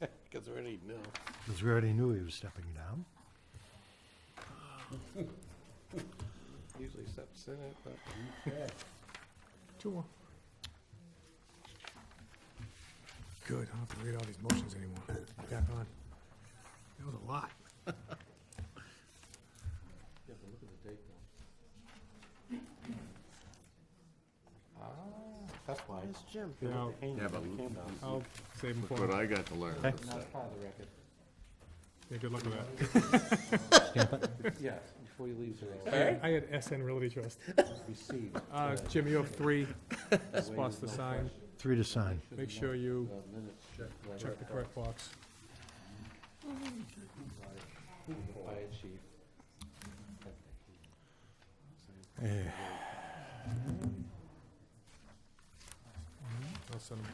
Because we already know. Because we already knew he was stepping down. Usually steps in it, but Two more. Good, I don't have to read all these motions anymore. Back on. That was a lot. Ah, that's why. Where's Jim? Yeah, Yeah, but. I'll save them What for, I got to learn. Part of the record. yeah, good luck with that. Yeah, before he leaves, I had- I had SN Realty Trust. receive. Uh, Jim, you have three spots to sign. Three to sign. Make sure you Minutes, check the correct box. fire chief. I'll send them.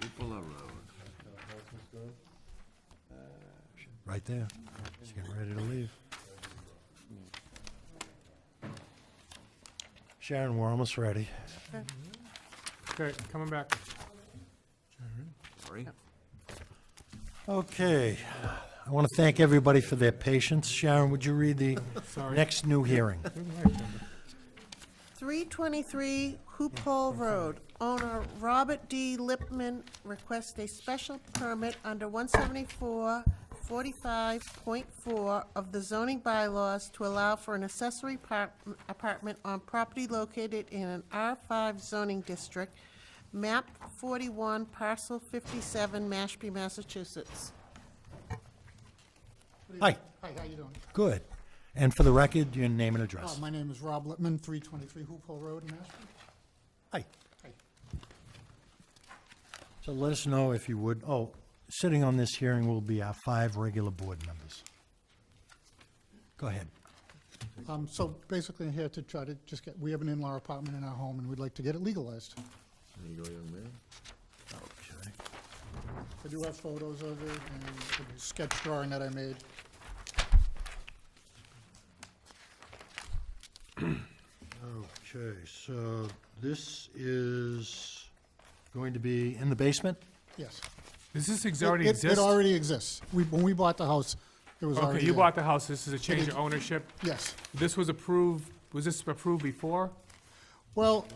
People around. Right there. He's getting ready to leave. Sharon, we're almost ready. Okay, coming back. Sorry. Okay. I want to thank everybody for their patience. Sharon, would you read the Sorry. next new hearing? Where's my agenda? 323 Hoop Hole Road. Owner Robert D. Lipman requests a special permit under 174-45.4 of the zoning bylaws to allow for an accessory par- apartment on property located in an R5 zoning district, map 41, parcel 57, Mashpee, Massachusetts. Hi, Hi, how you doing? good. And for the record, your name and Uh, address. My name is Rob Lippman, 323 Hoop Hole Road in Mashpee. Hi. Hi. So let us know if you would, oh, sitting on this hearing will be our five regular board members. Go ahead. Um, So basically, I'm here to try to just get, we have an in-law apartment in our home, and we'd like to get it legalized. There you go, young man. Okay. I do have photos of it and a sketch drawing that I made. Okay, so this is going to be in the basement? Yes. Does this ex- It- already it- exist? It already exists. We, when we bought the house, it was already Okay, you there. bought the house, this is a change of ownership. Yes. This was approved, was this approved before? Well,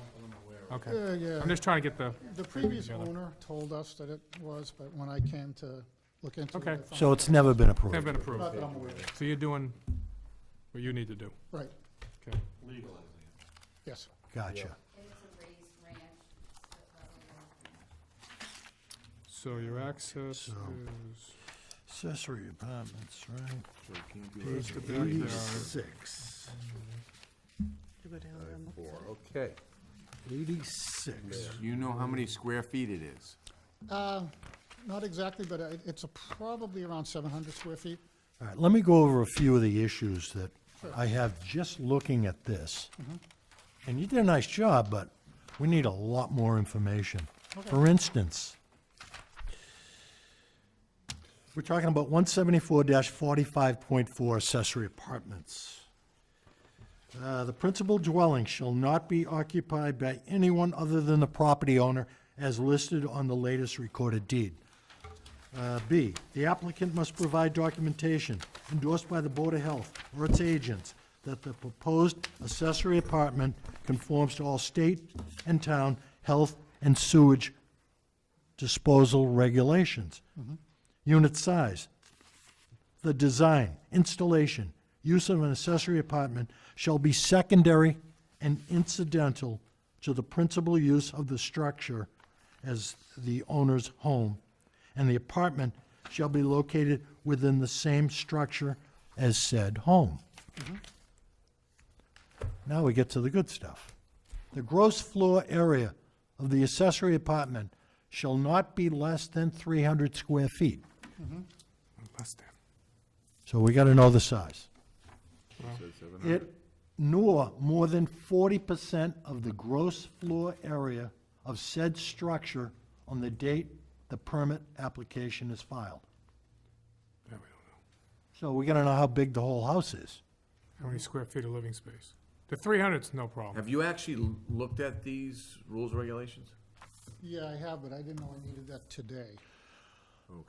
Okay. uh, yeah. I'm just trying to get the, The previous owner told us that it was, but when I came to look into it, Okay. I found- So it's never been they've approved? been not approved. that I'm aware of. So you're doing what you need to do. Right, Okay. yes. Gotcha. It's a raised ranch. So your access is, Accessory apartments, right? So I can't do Page that. the back there. Six. Four, okay. Eighty-six. You know how many square feet it is? Uh, Not exactly, but it- it's a- probably around 700 square feet. All right, let me go over a few of the issues that I have just looking at this. And you did a nice job, but we need a lot more information. For instance, we're talking about one seventy-four forty-five point four accessory apartments. Uh, the principal dwelling shall not be occupied by anyone other than the property owner as listed on the latest recorded deed. Uh, B, the applicant must provide documentation endorsed by the Board of Health or its agents that the proposed accessory apartment conforms to all state and town health and sewage disposal regulations. Unit size, the design, installation, use of an accessory apartment shall be secondary and incidental to the principal use of the structure as the owner's home, and the apartment shall be located within the same structure as said home. Now we get to the good stuff. The gross floor area of the accessory apartment shall not be less than 300 square feet. less than. So we got to know the size. Said seven hundred. It, nor more than 40% of the gross floor area of said structure on the date the permit application is filed. That we don't know. So we got to know how big the whole house is. How many square feet of living space? The 300's no problem. Have you actually l- looked at these rules, regulations? Yeah, I have, but I didn't know I needed that today.